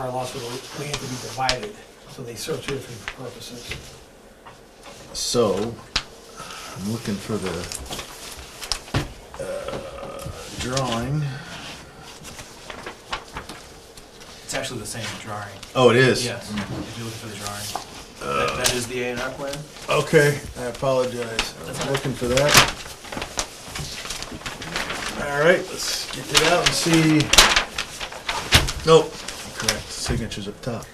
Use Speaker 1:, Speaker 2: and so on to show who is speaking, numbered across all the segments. Speaker 1: hospital, we have to be divided, so they serve two different purposes.
Speaker 2: So, I'm looking for the uh, drawing.
Speaker 3: It's actually the same drawing.
Speaker 2: Oh, it is?
Speaker 3: Yes, if you look for the drawing.
Speaker 2: Uh.
Speaker 3: That- That is the A and R plan?
Speaker 2: Okay, I apologize. I was looking for that. All right, let's get it out and see. Nope, correct, signature's up top.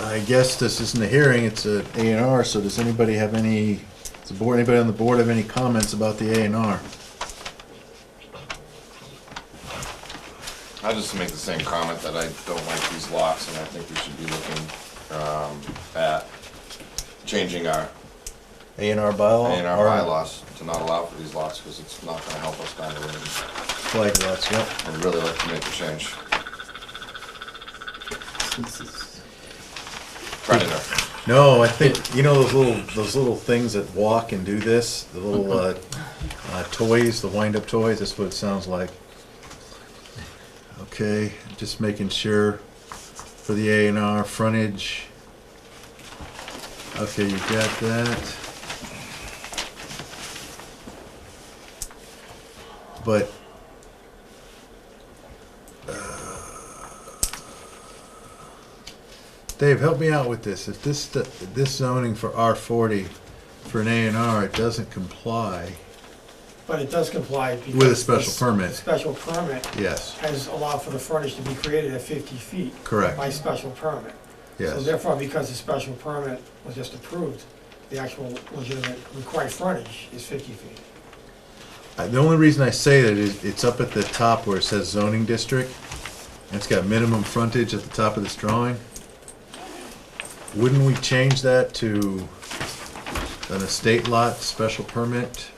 Speaker 2: I guess this isn't a hearing, it's a A and R, so does anybody have any, does the board, anybody on the board have any comments about the A and R?
Speaker 4: I'll just make the same comment that I don't like these locks, and I think we should be looking um, at changing our
Speaker 2: A and R bylaw?
Speaker 4: A and our
Speaker 2: Or
Speaker 4: bylaws to not allow for these locks, because it's not gonna help us down the road.
Speaker 2: Flag lots, yep.
Speaker 4: I'd really like to make a change. Predator.
Speaker 2: No, I think you know those little those little things that walk and do this. The little uh, uh, toys, the wind-up toys. That's what it sounds like. Okay, just making sure for the A and R frontage. Okay, you got that. But Dave, help me out with this. If this, st- this zoning for R forty, for an A and R, it doesn't comply,
Speaker 1: But it does comply because.
Speaker 2: With a special
Speaker 1: this
Speaker 2: permit.
Speaker 1: Special permit
Speaker 2: yes,
Speaker 1: has allowed for the frontage to be created at fifty feet.
Speaker 2: Correct.
Speaker 1: By special permit. So
Speaker 2: yes,
Speaker 1: therefore, because the special permit was just approved, the actual legitimate required frontage is fifty feet.
Speaker 2: I- Uh, the only reason I say that is, it's up at the top where it says zoning district, and it's got minimum frontage at the top of this drawing. Wouldn't we change that to an estate lot special permit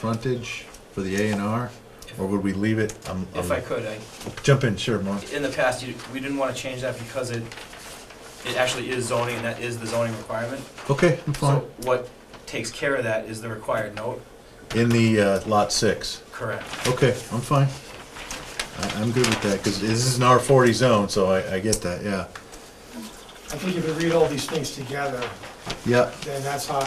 Speaker 2: frontage for the A and R? Or would we leave it, um,
Speaker 3: If I could, I,
Speaker 2: jump in, sure, Mark,
Speaker 3: in the past, you- we didn't want to change that because it, it actually is zoning, and that is the zoning requirement.
Speaker 2: okay, I'm fine,
Speaker 3: So what takes care of that is the required note,
Speaker 2: in the, uh, lot six.
Speaker 3: correct?
Speaker 2: Okay, I'm fine. I, I'm good with that, because this is an R forty zone, so I, I get that, yeah.
Speaker 1: I think if you read all these things together,
Speaker 2: Yeah,
Speaker 1: then that's how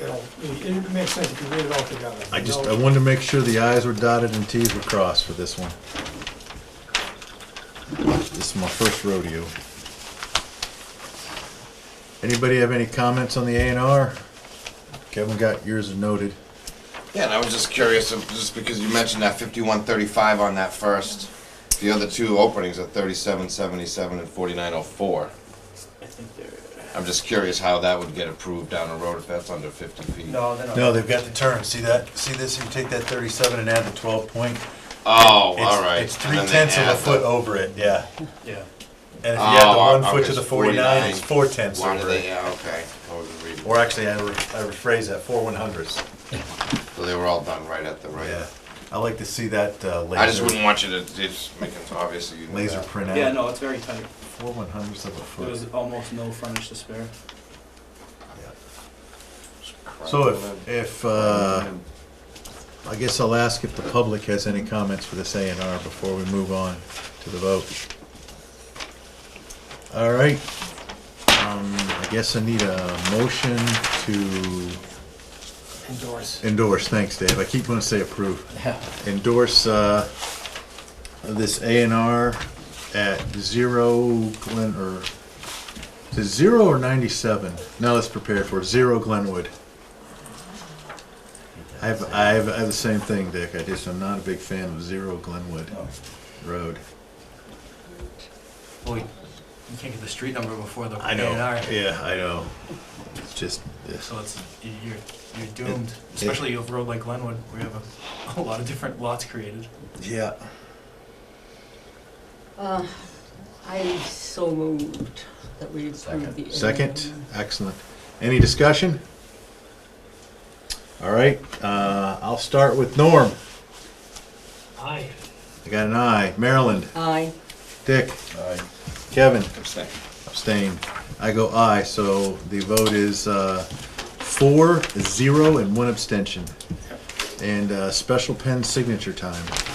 Speaker 1: it'll, it makes sense if you read it all together.
Speaker 2: I just,
Speaker 1: No-
Speaker 2: I wanted to make sure the i's were dotted and t's were crossed for this one. This is my first rodeo. Anybody have any comments on the A and R? Kevin got yours noted.
Speaker 4: Yeah, and I was just curious, if- just because you mentioned that fifty-one thirty-five on that first, the other two openings are thirty-seven seventy-seven and forty-nine oh four. I'm just curious how that would get approved down the road if that's under fifty feet.
Speaker 3: No, they're not.
Speaker 2: No, they've got the turn, see that, see this, you take that thirty-seven and add the twelve point.
Speaker 4: Oh,
Speaker 2: It's-
Speaker 4: all right.
Speaker 2: It's
Speaker 4: And
Speaker 2: three
Speaker 4: then they
Speaker 2: tenths of a
Speaker 4: add the-
Speaker 2: foot over it, yeah.
Speaker 3: Yeah.
Speaker 2: And if you add the
Speaker 4: Oh,
Speaker 2: one
Speaker 4: okay,
Speaker 2: foot to the
Speaker 4: it's
Speaker 2: forty-nine, it's four tenths
Speaker 4: Why do
Speaker 2: over
Speaker 4: they,
Speaker 2: it.
Speaker 4: yeah, okay. I wasn't reading.
Speaker 2: Or actually, I re- I rephrase that, four one hundredths.
Speaker 4: So they were all done right at the
Speaker 2: Yeah,
Speaker 4: right.
Speaker 2: I like to see that uh,
Speaker 4: I just
Speaker 2: laser,
Speaker 4: wouldn't want you to, just make it obvious that you knew
Speaker 2: laser
Speaker 4: that.
Speaker 2: print
Speaker 3: Yeah,
Speaker 2: out.
Speaker 3: no, it's very tight.
Speaker 2: Four one hundredths of a
Speaker 3: There was
Speaker 2: foot.
Speaker 3: almost no frontage to spare.
Speaker 2: yeah.
Speaker 4: Crap.
Speaker 2: So if, if, uh, I guess I'll ask if the public has any comments for this A and R before we move on to the vote. All right, um, I guess I need a motion to
Speaker 1: Endorse.
Speaker 2: Endorse, thanks, Dave. I keep wanting to say approve. Endorse uh, this A and R at zero Glen, or, is it zero or ninety-seven? Now let's prepare for it. zero Glenwood. I have, I have, I have the same thing, Dick. I just, I'm not a big fan of zero Glenwood Road.
Speaker 3: Well, you you can't get the street number before the A
Speaker 2: I
Speaker 3: and
Speaker 2: know,
Speaker 3: R.
Speaker 2: yeah, I know. It's just, this.
Speaker 3: So it's, you're, you're doomed, especially if road like Glenwood, where you have a, a lot of different lots created.
Speaker 2: yeah.
Speaker 5: Uh, I so moved that we approve the.
Speaker 2: Second, excellent. Any discussion? All right, uh, I'll start with Norm.
Speaker 1: Aye.
Speaker 2: I got an aye. Maryland,
Speaker 5: Aye.
Speaker 2: Dick,
Speaker 4: Aye.
Speaker 2: Kevin,
Speaker 4: Abstain.
Speaker 2: abstain. I go aye, so the vote is, uh, four, zero, and one abstention. And, uh, special pen signature time.